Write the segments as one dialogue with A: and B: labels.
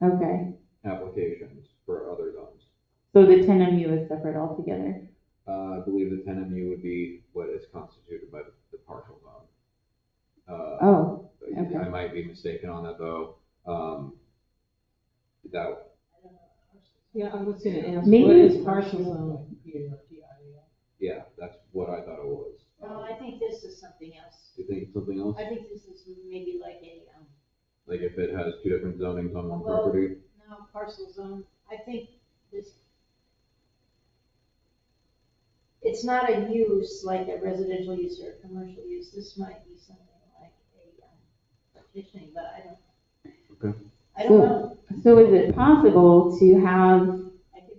A: Okay,
B: um, applications for other zones.
A: so the ten MU is separate altogether.
B: Uh, I believe the ten MU would be what is constituted by the, the partial zone. Uh,
A: Oh, okay.
B: I might be mistaken on that though. Um, that,
C: Yeah, I was gonna ask,
A: Maybe
C: what is
A: it's
C: partial zone here? DIA?
B: yeah, that's what I thought it was. Um,
D: No, I think this is something else.
B: Do you think it's something else?
D: I think this is maybe like a, um,
B: Like if it has two different zonings on one
D: Well,
B: property?
D: no, parcel zone, I think this. It's not a use like a residential use or a commercial use, this might be something like a um, petitioning, but I don't.
B: Okay.
D: I don't know,
A: So is it possible to have,
D: I could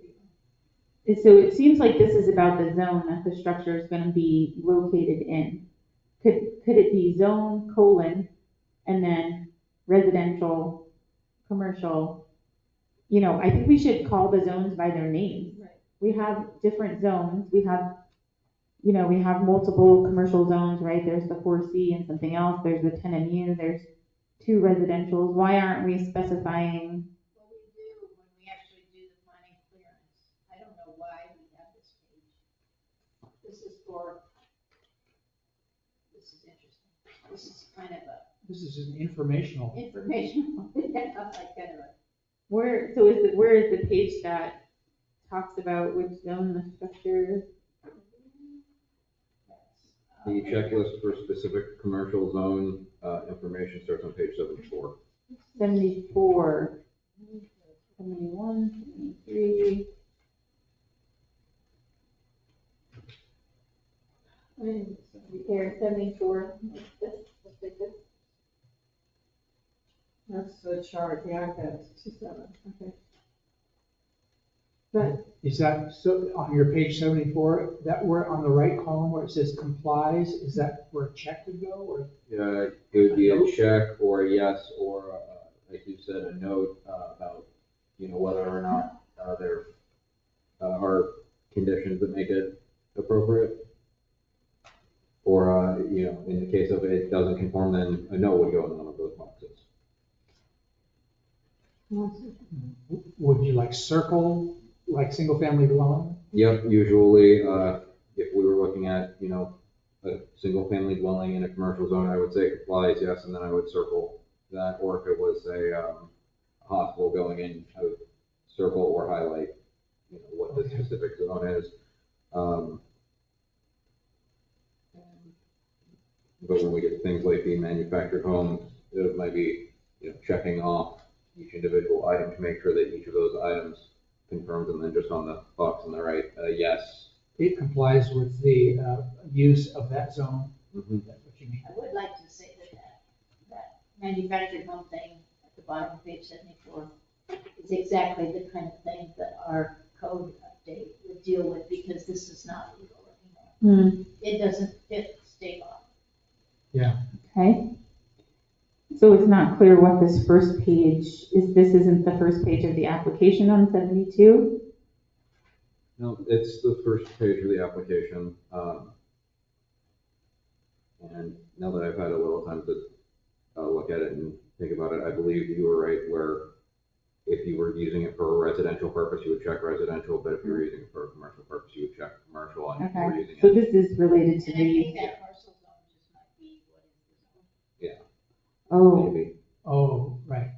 D: be,
A: so it seems like this is about the zone that the structure is gonna be located in. Could, could it be zone colon and then residential, commercial? You know, I think we should call the zones by their names.
D: Right.
A: We have different zones, we have, you know, we have multiple commercial zones, right? There's the four C and something else, there's the ten MU, there's two residentials. Why aren't we specifying
D: what we do when we actually do the planning clearance, I don't know why we have this page. This is for, this is interesting, this is kind of a
E: This is an informational.
D: informational, yeah, like kind of a
A: Where, so is the, where is the page that talks about which zone the structure?
D: uh,
B: The checklist for specific commercial zone, uh, information starts on page seventy-four.
A: Seventy-four, seventy-one, seventy-three.
D: I mean, here, seventy-four, this, let's take this.
C: That's the chart, yeah, I've got sixty-seven, okay.
E: Is that, so on your page seventy-four, that where on the right column where it says complies, is that where a check would go or?
B: Yeah, Uh, it would be a check or a yes or, uh, like you said, a note uh, about, you know, whether or not uh, there uh, are conditions that make it appropriate. Or, uh, you know, in the case of it doesn't conform, then a no would go in one of those boxes.
E: Would you like circle, like single-family dwelling?
B: Yep, usually, uh, if we were looking at, you know, a single-family dwelling in a commercial zone, I would say complies, yes, and then I would circle that, or if it was a, um, hospital going in, I would circle or highlight, you know, what the
E: Okay.
B: specific zone is. Um, But when we get to things like the manufactured homes, it might be, you know, checking off each individual item to make sure that each of those items confirms, and then just on the box on the right, uh, yes.
E: It complies with the uh, use of that zone,
B: Mhm.
E: that's what you mean.
D: I would like to say that that, that manufactured home thing at the bottom of page seventy-four is exactly the kind of thing that our code update would deal with, because this is not legal anymore. It doesn't fit state law.
A: Okay. So it's not clear what this first page is, this isn't the first page of the application on seventy-two?
B: No, it's the first page of the application. um, And now that I've had a little time to uh, look at it and think about it, I believe you were right where if you were using it for a residential purpose, you would check residential, but if you were using it for a commercial purpose, you would check commercial, and if you were using
A: So
B: it.
A: this is related to
D: And I think
A: the,
D: that parcel zone just might be what is the zone.
A: oh,
B: Maybe,
E: Oh, right.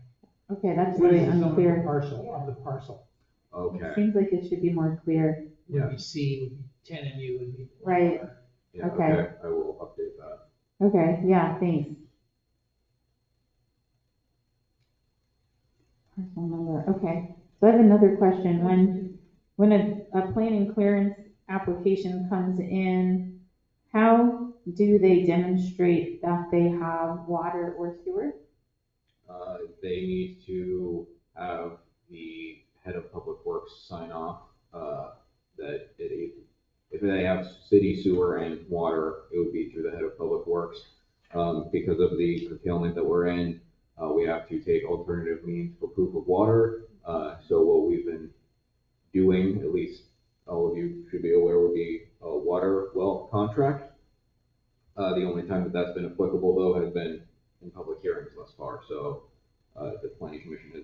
A: okay, that's
E: What
A: really
E: is the zone of the
A: unclear.
E: Parcel, of the parcel.
A: It
B: okay,
A: seems like it should be more clear.
E: Would be C, would be ten MU, would be.
A: Right.
B: yeah,
A: Okay.
B: okay, I will update that.
A: Okay, yeah, thanks. Parcel number, okay. So I have another question. When, when a, a planning clearance application comes in, how do they demonstrate that they have water or sewer?
B: Uh, they need to have the head of public works sign off, uh, that it, if they have city sewer and water, it would be through the head of public works. Um, because of the curtailment that we're in, uh, we have to take alternative means for proof of water. Uh, so what we've been doing, at least all of you should be aware, would be a water well contract. Uh, the only time that that's been applicable though has been in public hearings thus far, so uh, the planning commission has